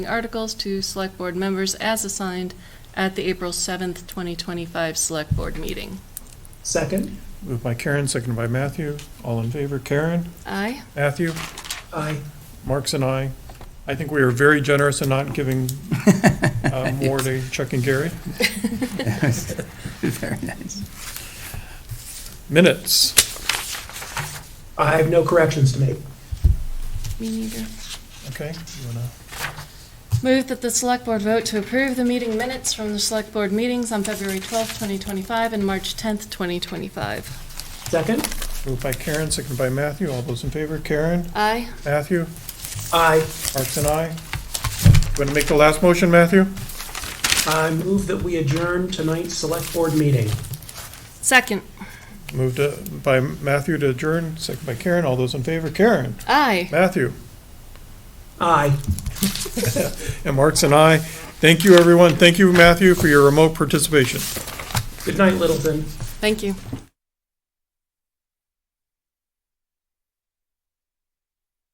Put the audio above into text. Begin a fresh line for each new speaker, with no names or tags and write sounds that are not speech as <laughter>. articles to select board members as assigned at the April 7th, 2025 select board meeting.
Second,
Moved by Karen, seconded by Matthew. All in favor, Karen,
Aye?
Matthew,
aye.
Marks and I. I think we are very generous in not giving
<laughs>
uh, more to Chuck and Gary.
Very nice.
Minutes,
I have no corrections to make.
Me neither.
okay? you wanna-
Move that the select board vote to approve the meeting minutes from the select board meetings on February 12th, 2025 and March 10th, 2025.
Second,
Moved by Karen, seconded by Matthew. All those in favor, Karen,
Aye?
Matthew,
aye.
Marks and I. Want to make the last motion, Matthew?
I move that we adjourn tonight's select board meeting.
Second?
Moved uh, by Matthew to adjourn, seconded by Karen. All those in favor, Karen,
Aye.
Matthew,
Aye.
and Marks and I. Thank you, everyone. Thank you, Matthew, for your remote participation.
Good night, Littleton.
Thank you.